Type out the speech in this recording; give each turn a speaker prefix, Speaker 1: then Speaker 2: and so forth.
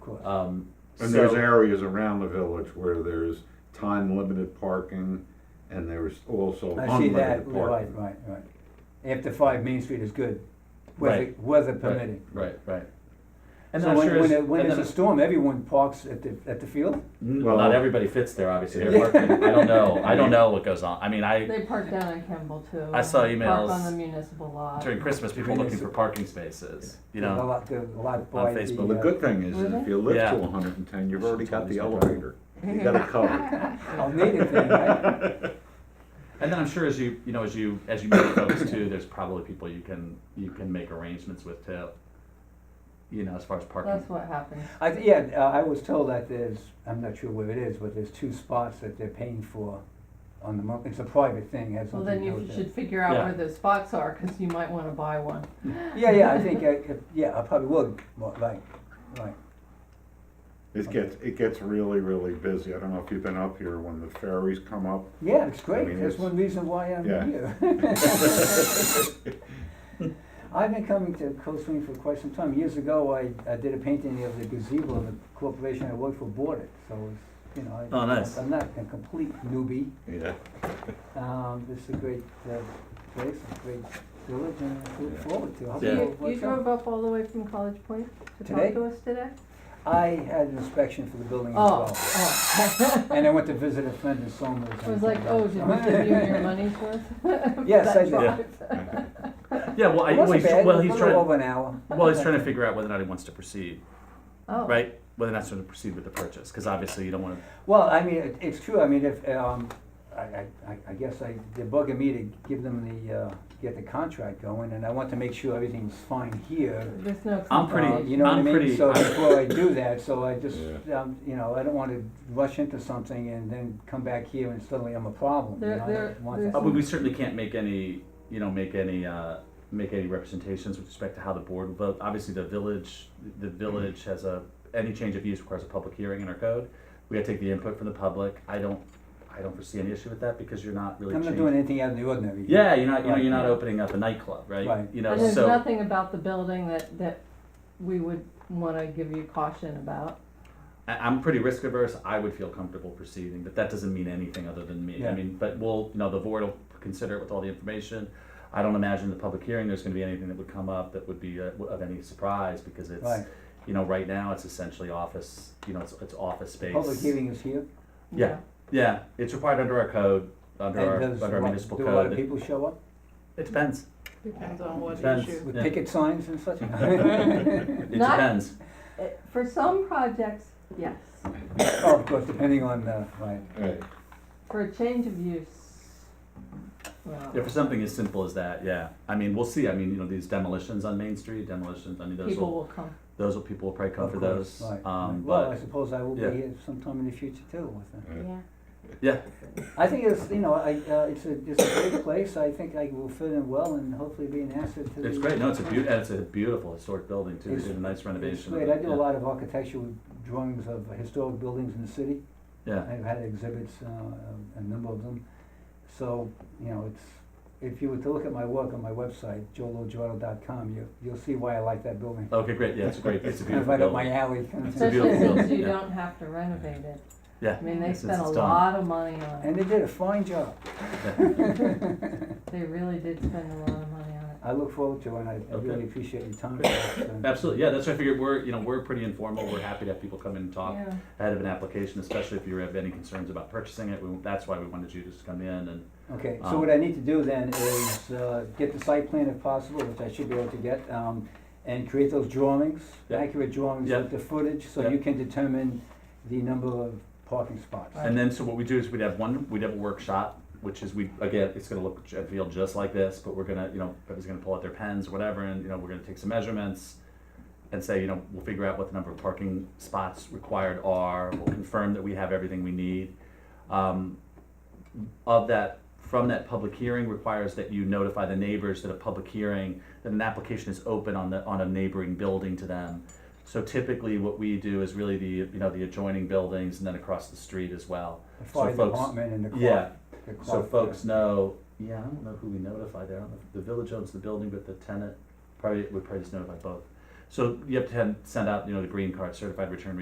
Speaker 1: course.
Speaker 2: Um,
Speaker 3: And there's
Speaker 2: so-
Speaker 3: areas around the village where there's time limited parking and there's also
Speaker 1: I see that,
Speaker 3: unlimited
Speaker 1: right,
Speaker 3: parking.
Speaker 1: right, right. After five, Main Street is good, weather,
Speaker 2: Right.
Speaker 1: weather
Speaker 2: Right.
Speaker 1: permitting.
Speaker 2: Right, right. And
Speaker 1: So
Speaker 2: I'm
Speaker 1: when,
Speaker 2: sure
Speaker 1: when,
Speaker 2: as-
Speaker 1: it- when
Speaker 2: and
Speaker 1: it's
Speaker 2: then-
Speaker 1: a storm, everyone parks at the, at the field?
Speaker 2: N-
Speaker 3: Well-
Speaker 2: not everybody fits there, obviously. They're
Speaker 3: Yeah.
Speaker 2: working. I don't know. I don't know what goes on. I mean, I
Speaker 4: They park down on Campbell too.
Speaker 2: I saw emails
Speaker 4: Park on the municipal lot.
Speaker 2: during Christmas, people looking for parking spaces. You
Speaker 1: A
Speaker 2: know,
Speaker 1: lot, a lot by the. uh,
Speaker 2: Facebook.
Speaker 3: Well, the good thing is, is if you live
Speaker 2: Yeah.
Speaker 3: to hundred and ten, you've already got the
Speaker 2: Yeah.
Speaker 3: elevator. You got it covered.
Speaker 1: uh, Almeida thing, right?
Speaker 2: and then I'm sure as you you know as you as you meet folks too, there's probably people you can you can make arrangements with too. You know, as far as parking.
Speaker 4: That's what happens.
Speaker 1: I, th- yeah, uh, I was told that there's, I'm not sure where it is, but there's two spots that they're paying for on the month, it's a private thing, has
Speaker 4: Well,
Speaker 1: something to
Speaker 4: then
Speaker 1: do
Speaker 4: you
Speaker 1: with it.
Speaker 4: should figure out
Speaker 2: Yeah.
Speaker 4: where those spots are, cause you might wanna buy one.
Speaker 1: Yeah, yeah, I think, I, could- yeah, I probably will, well, right, right.
Speaker 3: It gets, it gets really, really busy. I don't know if you've been up here when the ferries come up.
Speaker 1: Yeah, it's
Speaker 3: I
Speaker 1: great.
Speaker 3: mean,
Speaker 1: That's
Speaker 3: it's-
Speaker 1: one reason why I'm
Speaker 3: Yeah.
Speaker 1: here. I've been coming to Cold Spring for quite some time. Years ago, I, I did a painting of the gazebo of the corporation I worked for bought it. So, it's, you know, I,
Speaker 2: Oh, nice.
Speaker 1: I'm not a complete newbie.
Speaker 3: Yeah.
Speaker 1: Um, this is a great uh, place, a great village, and I look
Speaker 3: Yeah.
Speaker 1: forward to. it. I'll
Speaker 2: Yeah.
Speaker 1: be
Speaker 4: You,
Speaker 1: over-
Speaker 4: you drove up all the way from College Point to
Speaker 1: Today?
Speaker 4: talk to us today?
Speaker 1: I had an inspection for the building as
Speaker 4: Oh,
Speaker 1: well,
Speaker 4: oh.
Speaker 1: and I went to visit a friend in Somers.
Speaker 4: I was like, oh, did we give you your money's worth? for
Speaker 1: Yes, I
Speaker 4: that
Speaker 1: did.
Speaker 4: drive?
Speaker 2: Yeah, well, I,
Speaker 1: It
Speaker 2: well,
Speaker 1: wasn't
Speaker 2: he's,
Speaker 1: bad.
Speaker 2: well,
Speaker 1: It was
Speaker 2: he's
Speaker 1: a little
Speaker 2: trying.
Speaker 1: over an hour.
Speaker 2: Well, he's trying to figure out whether or not he wants to proceed,
Speaker 4: Oh.
Speaker 2: right? Whether or not he's going to proceed with the purchase, because obviously you don't want to.
Speaker 1: Well, I mean, it, it's true, I mean, if, um, I, I, I- I guess I, they're bugging me to give them the, uh, get the contract going, and I want to make sure everything's fine here.
Speaker 4: There's no.
Speaker 2: I'm pretty-
Speaker 1: Uh, You know what I
Speaker 2: I'm
Speaker 1: mean?
Speaker 2: pretty-
Speaker 1: So
Speaker 2: I'm-
Speaker 1: before I do that, so I just, um, you know, I don't wanna rush into something and then come back here and suddenly I'm a problem, you
Speaker 4: There-
Speaker 1: know, I
Speaker 4: there-
Speaker 1: don't want
Speaker 2: Uh,
Speaker 1: that.
Speaker 4: there's-
Speaker 2: but we certainly can't make any, you know, make any, uh, make any representations with respect to how the board will vote. Obviously, the village, the village has a, any change of use requires a public hearing in our code. We gotta take the input from the public. I don't, I don't foresee any issue with that because you're not really
Speaker 1: I'm not doing
Speaker 2: changing.
Speaker 1: anything out of the ordinary. here.
Speaker 2: Yeah, you're not, you know,
Speaker 1: Right.
Speaker 2: you're not opening up a nightclub, right?
Speaker 1: Right.
Speaker 2: You know,
Speaker 4: And there's
Speaker 2: so,
Speaker 4: nothing about the building that, that we would wanna give you caution about.
Speaker 2: I, I'm pretty risk averse. I would feel comfortable proceeding, but that doesn't mean anything other than me. I
Speaker 1: Yeah.
Speaker 2: mean, but we'll, you know, the board will consider it with all the information. I don't imagine the public hearing, there's gonna be anything that would come up that would be uh, of any surprise because it's,
Speaker 1: Right,
Speaker 2: you know, right now it's essentially office, you know, it's, it's office space.
Speaker 1: public hearing is here,
Speaker 2: Yeah.
Speaker 4: Yeah.
Speaker 2: Yeah, it's required under our code,
Speaker 1: and
Speaker 2: under our,
Speaker 1: does,
Speaker 2: under our municipal
Speaker 1: do a lot of
Speaker 2: code.
Speaker 1: people show up
Speaker 2: It depends,
Speaker 5: Depends on what
Speaker 2: Depends.
Speaker 5: issue.
Speaker 1: with
Speaker 2: Yeah.
Speaker 1: picket signs and such?
Speaker 2: it
Speaker 4: Not-
Speaker 2: depends.
Speaker 4: Uh, For some projects, yes.
Speaker 1: Oh, of course, depending on, uh, right.
Speaker 3: Right.
Speaker 4: For a change of use. well,
Speaker 2: Yeah, for something as simple as that, yeah. I mean, we'll see. I mean, you know, these demolitions on Main Street, demolitions, I mean, those
Speaker 4: People
Speaker 2: will,
Speaker 4: will come.
Speaker 2: those will, people will probably come
Speaker 1: Of
Speaker 2: for
Speaker 1: course,
Speaker 2: those.
Speaker 1: right,
Speaker 2: Um,
Speaker 1: right. Well, I
Speaker 2: but,
Speaker 1: suppose I will be
Speaker 2: yeah.
Speaker 1: here sometime in the future too with them.
Speaker 4: Yeah.
Speaker 2: yeah,
Speaker 1: I think it's, you know, I, uh, it's a, it's a great place, I think I will fit in well and hopefully be an asset to the.
Speaker 2: it's great. No, it's a beaut, and it's a beautiful historic building too. They
Speaker 1: It's-
Speaker 2: did a nice
Speaker 1: It's
Speaker 2: renovation. of
Speaker 1: great,
Speaker 2: it,
Speaker 1: I do
Speaker 2: yeah.
Speaker 1: a lot of architectural drawings of historic buildings in the city,
Speaker 2: Yeah,
Speaker 1: I've had exhibits, uh, a number of them. So, you know, it's, if you were to look at my work on my website, joelojordo.com, you, you'll see why I like that building.
Speaker 2: okay, great. Yeah, it's great. It's a
Speaker 1: Kind of
Speaker 2: beautiful
Speaker 1: right up my
Speaker 2: building.
Speaker 1: alley, kind of
Speaker 2: It's a
Speaker 1: thing.
Speaker 4: Especially
Speaker 2: beautiful
Speaker 4: since
Speaker 2: building,
Speaker 4: you
Speaker 2: yeah.
Speaker 4: don't have to renovate it.
Speaker 2: Yeah.
Speaker 4: I mean, they
Speaker 2: Since
Speaker 4: spent a
Speaker 2: it's done.
Speaker 4: lot of money on
Speaker 1: And
Speaker 4: it.
Speaker 1: they did a fine job.
Speaker 4: They really did spend a lot of money on it.
Speaker 1: I look forward to it, and I, I
Speaker 2: Okay.
Speaker 1: really appreciate your time. Absolutely.
Speaker 2: Absolutely, yeah, that's what I figured, we're, you know, we're pretty informal, we're happy to have people come in and talk
Speaker 4: Yeah.
Speaker 2: ahead of an application, especially if you have any concerns about purchasing it, we, that's why we wanted you to just come in and,
Speaker 1: Okay,
Speaker 2: Um,
Speaker 1: so what I need to do then is, uh, get the site plan if possible, which I should be able to get, um, and create those drawings,
Speaker 2: Yeah.
Speaker 1: accurate drawings
Speaker 2: Yeah.
Speaker 1: of the footage, so
Speaker 2: Yeah.
Speaker 1: you can determine the number of parking spots.
Speaker 2: and then, so what we do is we'd have one, we'd have a workshop, which is, we, again, it's gonna look, and feel just like this, but we're gonna, you know, everybody's gonna pull out their pens, or whatever, and, you know, we're gonna take some measurements and say, you know, we'll figure out what the number of parking spots required are, we'll confirm that we have everything we need. Um, of that, from that public hearing requires that you notify the neighbors that a public hearing, that an application is open on the, on a neighboring building to them. So typically, what we do is really the, you know, the adjoining buildings and then across the street as well.
Speaker 1: The fire
Speaker 2: folks-
Speaker 1: department and the
Speaker 2: Yeah,
Speaker 1: clock. the
Speaker 2: so
Speaker 1: clock,
Speaker 2: folks know, yeah, I don't know who we notify there, I don't know, if the village owns the building, but the tenant, probably, we probably just notify both. So you have to have, send out, you know, the green card certified return receipt